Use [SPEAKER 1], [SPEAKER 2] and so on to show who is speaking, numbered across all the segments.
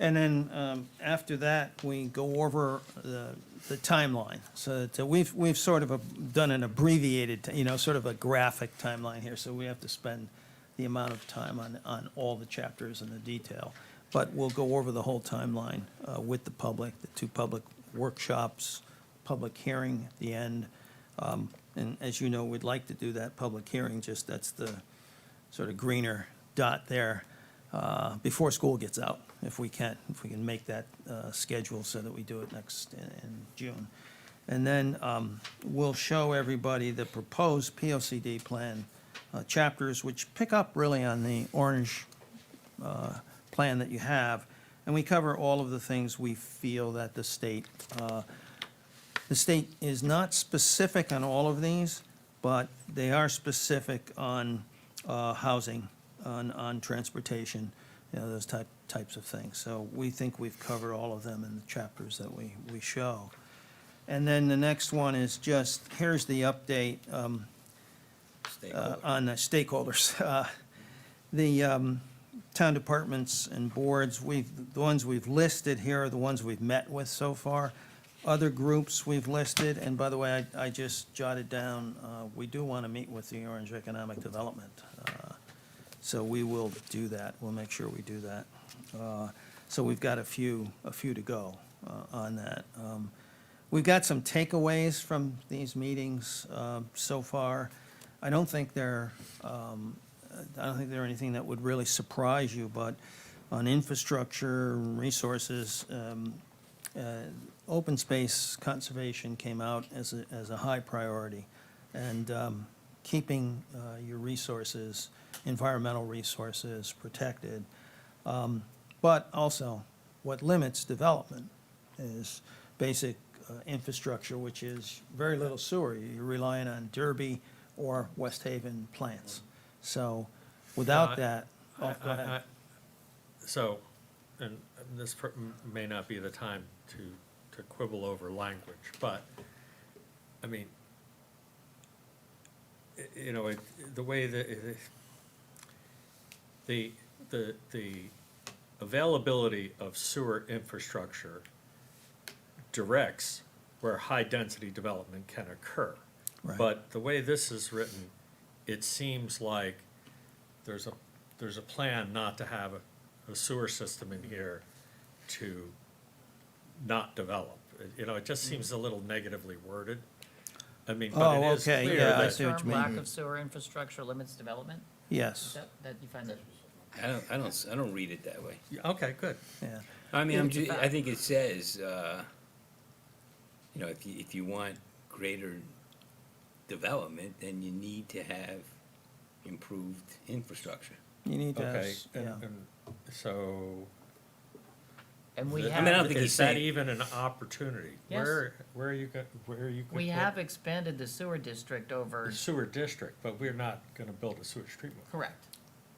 [SPEAKER 1] And then um, after that, we go over the the timeline. So that, uh, we've, we've sort of a- done an abbreviated, you know, sort of a graphic timeline here. So we have to spend the amount of time on, on all the chapters and the detail. But we'll go over the whole timeline uh, with the public, the two public workshops, public hearing at the end. Um, And as you know, we'd like to do that public hearing, just that's the sort of greener dot there uh, before school gets out, if we can, if we can make that uh, schedule so that we do it next in- in June. And then um, we'll show everybody the proposed POCD plan uh, chapters, which pick up really on the orange uh, plan that you have. And we cover all of the things we feel that the state uh, the state is not specific on all of these, but they are specific on uh, housing, on, on transportation, you know, those type, types of things. So we think we've covered all of them in the chapters that we, we show. And then the next one is just, here's the update um, uh, on the stakeholders. Uh, The um, town departments and boards, we've, the ones we've listed here are the ones we've met with so far. Other groups we've listed, and by the way, I, I just jotted down, uh, we do want to meet with the Orange Economic Development. uh, So we will do that, we'll make sure we do that. Uh, So we've got a few, a few to go uh, on that. Um, We've got some takeaways from these meetings um, so far. I don't think they're, um, I don't think they're anything that would really surprise you, but on infrastructure, resources, um, uh, open space conservation came out as a, as a high priority. And um, keeping uh, your resources, environmental resources protected. Um, But also, what limits development is basic uh, infrastructure, which is very little sewer. You're relying on Derby or West Haven plants. So without
[SPEAKER 2] Yeah, I-
[SPEAKER 1] that, oh, go
[SPEAKER 2] I- I-
[SPEAKER 1] ahead.
[SPEAKER 2] I- So, and this per- m- may not be the time to, to quibble over language, but, I mean, y- you know, it, the way that, it- the, the, the availability of sewer infrastructure directs where high-density development can occur.
[SPEAKER 1] Right.
[SPEAKER 2] But the way this is written, it seems like there's a, there's a plan not to have a- a sewer system in here to not develop. It- You know, it
[SPEAKER 1] Mm.
[SPEAKER 2] just seems a little negatively worded. I mean, but
[SPEAKER 1] Oh,
[SPEAKER 2] it is
[SPEAKER 1] okay,
[SPEAKER 2] clear
[SPEAKER 1] yeah, I
[SPEAKER 2] that
[SPEAKER 1] see what
[SPEAKER 3] Term
[SPEAKER 1] you
[SPEAKER 3] lack
[SPEAKER 1] mean.
[SPEAKER 3] of sewer infrastructure limits development, Is
[SPEAKER 1] Yes,
[SPEAKER 3] that, that you find that?
[SPEAKER 4] I don't, I don't, s- I don't read it that way.
[SPEAKER 2] Yeah, Okay, good.
[SPEAKER 1] yeah.
[SPEAKER 4] I mean, I'm
[SPEAKER 3] It's a
[SPEAKER 4] ju- I
[SPEAKER 3] fact.
[SPEAKER 4] think it says, uh, you know, if you, if you want greater development, then you need to have improved infrastructure.
[SPEAKER 1] You need to, have
[SPEAKER 2] Okay.
[SPEAKER 1] s-
[SPEAKER 2] and-
[SPEAKER 1] yeah.
[SPEAKER 2] and So,
[SPEAKER 3] And we
[SPEAKER 4] I mean, I don't
[SPEAKER 3] have,
[SPEAKER 4] think
[SPEAKER 2] is
[SPEAKER 4] he's
[SPEAKER 2] that
[SPEAKER 4] saying-
[SPEAKER 2] even an opportunity?
[SPEAKER 3] Yes.
[SPEAKER 2] Where, where are you, go- where are you? could
[SPEAKER 3] we
[SPEAKER 2] put
[SPEAKER 3] have expanded the sewer district
[SPEAKER 2] a
[SPEAKER 3] over,
[SPEAKER 2] Sewer district, but we're not gonna build a sewage treatment.
[SPEAKER 3] correct,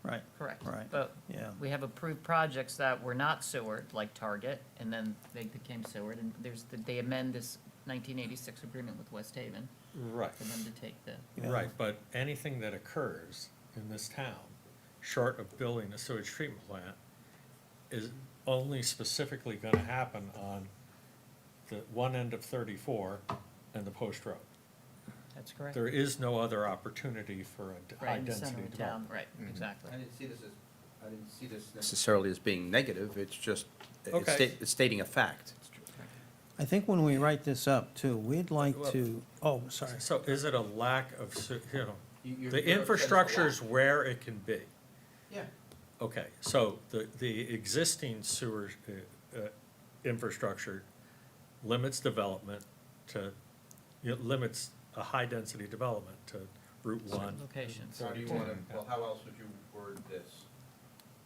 [SPEAKER 1] right,
[SPEAKER 3] correct.
[SPEAKER 1] Right.
[SPEAKER 3] But
[SPEAKER 1] yeah.
[SPEAKER 3] we have approved projects that were not sewered, like Target, and then they became sewered, and there's, the- they amend this nineteen eighty-six agreement with West Haven
[SPEAKER 2] Right.
[SPEAKER 3] for them to take the,
[SPEAKER 1] Yeah.
[SPEAKER 2] Right, but anything that occurs in this town, short of building a sewage treatment plant, is only specifically gonna happen on the one end of thirty-four and the post road.
[SPEAKER 3] that's correct.
[SPEAKER 2] There is no other opportunity for a
[SPEAKER 3] Right in the center
[SPEAKER 2] high-density
[SPEAKER 3] of town,
[SPEAKER 2] development.
[SPEAKER 3] right, exactly.
[SPEAKER 5] I didn't see this as, I didn't see this necessarily as being negative, it's just, it's
[SPEAKER 2] Okay.
[SPEAKER 5] sta- it's stating a fact.
[SPEAKER 1] I think when we write this up too, we'd like
[SPEAKER 2] Well-
[SPEAKER 1] to, oh, sorry.
[SPEAKER 2] So is it a lack of, se- you know,
[SPEAKER 5] You- you're-
[SPEAKER 2] the
[SPEAKER 5] you're upsetting
[SPEAKER 2] infrastructure
[SPEAKER 5] lot.
[SPEAKER 2] is where it can be.
[SPEAKER 5] Yeah,
[SPEAKER 2] Okay, so the, the existing sewer uh, uh, infrastructure limits development to, it limits a high-density development to Route One.
[SPEAKER 3] Locations.
[SPEAKER 5] how do you wanna, well, how else would you word this?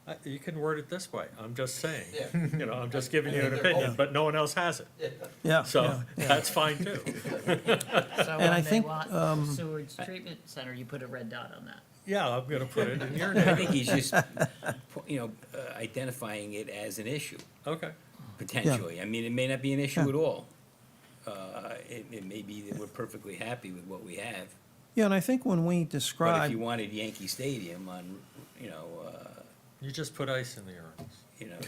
[SPEAKER 2] Uh, You can word it this way, I'm just saying.
[SPEAKER 5] Yeah.
[SPEAKER 2] You know, I'm just giving you an
[SPEAKER 5] I think they're both-
[SPEAKER 2] opinion, but no one else has it,
[SPEAKER 1] Yeah,
[SPEAKER 2] so
[SPEAKER 1] yeah, yeah.
[SPEAKER 2] that's fine too.
[SPEAKER 3] So
[SPEAKER 1] I
[SPEAKER 3] when they
[SPEAKER 1] think,
[SPEAKER 3] want
[SPEAKER 1] um,
[SPEAKER 3] sewer treatment center, you put a red dot on that.
[SPEAKER 2] Yeah, I'm gonna put it in your
[SPEAKER 4] I
[SPEAKER 2] name,
[SPEAKER 4] think he's just, po- you know, uh, identifying it as an issue,
[SPEAKER 2] okay.
[SPEAKER 4] potentially. I mean, it may not be an issue
[SPEAKER 1] Yeah.
[SPEAKER 4] at all. Uh, It, it may be that we're perfectly happy with what we have.
[SPEAKER 1] Yeah, and I think when we
[SPEAKER 4] But if
[SPEAKER 1] describe
[SPEAKER 4] you wanted Yankee Stadium on, you know, uh,
[SPEAKER 2] You just put ice in the urns.
[SPEAKER 4] you know,